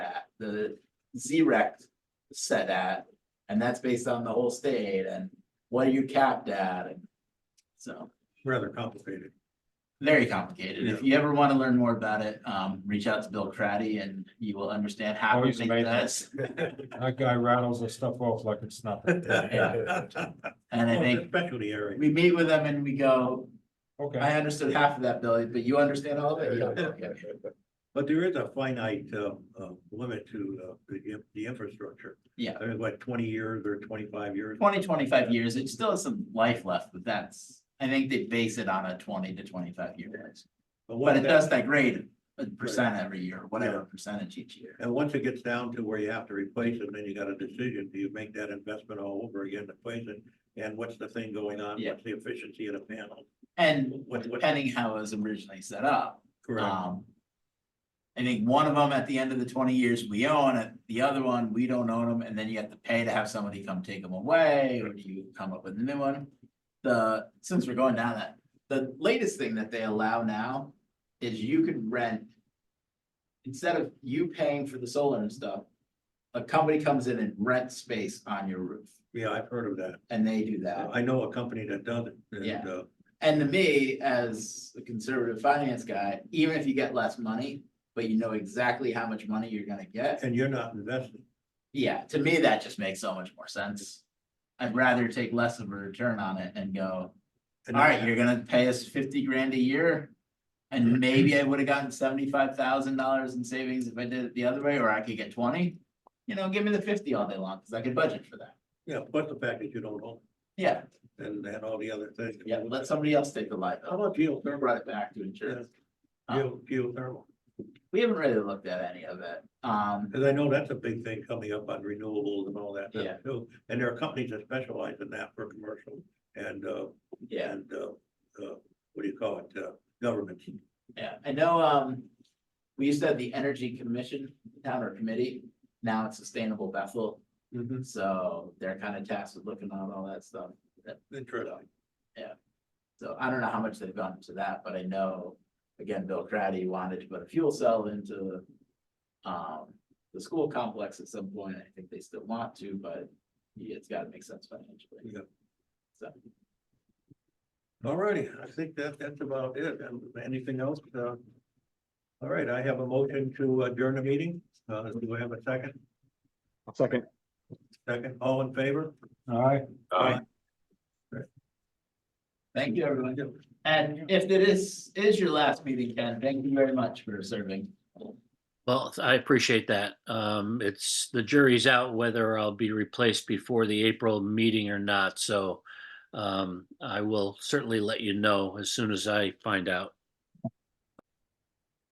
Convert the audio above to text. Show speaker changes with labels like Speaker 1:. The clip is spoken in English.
Speaker 1: the Z-Rex set at, and that's based on the whole state, and what are you capped at, and so,
Speaker 2: rather complicated.
Speaker 1: very complicated. If you ever wanna learn more about it, um, reach out to Bill Craddy and you will understand how to
Speaker 3: Always
Speaker 1: think
Speaker 3: amazing.
Speaker 1: that's.
Speaker 3: That guy rattles the stuff off like it's nothing.
Speaker 1: And I
Speaker 3: Oh,
Speaker 2: Well, it's a
Speaker 1: think
Speaker 2: Specialty area.
Speaker 1: we meet with them and we go, I
Speaker 3: Okay.
Speaker 1: understood half of that, Billy, but you understand all of it? You don't. Okay.
Speaker 2: But there is a finite, uh, uh, limit to, uh, the, in- the infrastructure.
Speaker 1: Yeah.
Speaker 2: I mean, what, twenty years or twenty-five years?
Speaker 1: 20, 25 years, it still has some life left, but that's, I think they base it on a twenty to twenty-five year. range.
Speaker 2: what
Speaker 1: But it
Speaker 2: that-
Speaker 1: does degrade a percent every year, whatever percentage each year.
Speaker 2: And once it gets down to where you have to replace it, then you got a decision, do you make that investment all over again to place it? And what's the thing going on?
Speaker 1: Yeah.
Speaker 2: What's the efficiency of the panel?
Speaker 1: And
Speaker 2: What- what-
Speaker 1: depending how it was originally set up, um. I think one of them at the end of the twenty years, we own it, the other one, we don't own them, and then you have to pay to have somebody come take them away, or do you come up with a new one? The, since we're going down that, the latest thing that they allow now is you could rent. Instead of you paying for the solar and stuff, a company comes in and rents space on your roof,
Speaker 2: Yeah, I've heard of that.
Speaker 1: and they do that.
Speaker 2: I know a company that does it. and,
Speaker 1: Yeah.
Speaker 2: uh,
Speaker 1: And to me, as a conservative finance guy, even if you get less money, but you know exactly how much money you're gonna get,
Speaker 2: And you're not investing.
Speaker 1: yeah, to me, that just makes so much more sense. I'd rather take less of a return on it and go,
Speaker 2: And
Speaker 1: alright,
Speaker 2: that-
Speaker 1: you're gonna pay us fifty grand a year. And maybe I would have gotten seventy-five thousand dollars in savings if I did it the other way, or I could get twenty. You know, give me the fifty all day long, cause I could budget for that.
Speaker 2: Yeah, plus the fact that you don't own
Speaker 1: Yeah,
Speaker 2: it and, and all the other things.
Speaker 1: yeah, let somebody else take the
Speaker 2: How
Speaker 1: liability,
Speaker 2: about
Speaker 1: Or
Speaker 2: geothermal?
Speaker 1: brought it back to insurance. Um,
Speaker 2: Geo- Geothermal,
Speaker 1: We haven't really looked at any of it, um,
Speaker 2: because I know that's a big thing coming up on renewables and all that
Speaker 1: Yeah.
Speaker 2: stuff too. And there are companies that specialize in that for commercial and, uh,
Speaker 1: yeah,
Speaker 2: and, uh, uh, what do you call it, uh, government.
Speaker 1: yeah, I know, um. We used to have the Energy Commission, town or committee, now it's Sustainable Bethel, Mm-hmm. so they're kind of tasked with looking at all that stuff.
Speaker 2: Interesting.
Speaker 1: So I don't know how much they've gone into that, but I know, again, Bill Craddy wanted to put a fuel cell into. Um, the school complex at some point, I think they still want to, but it's gotta make sense financially.
Speaker 2: Yeah.
Speaker 1: So,
Speaker 2: All righty, I think that, that's about it. And Anything else? Uh, All right, I have a motion to adjourn the meeting. Uh, do I have a second?
Speaker 3: Second.
Speaker 2: Second, all in favor?
Speaker 3: All right.
Speaker 1: thank you, everyone.
Speaker 2: Uh,
Speaker 1: And if it is, is your last meeting, Ken, thank you very much for serving.
Speaker 4: Well, I appreciate that. Um, it's, the jury's out whether I'll be replaced before the April meeting or not, so um, I will certainly let you know as soon as I find out.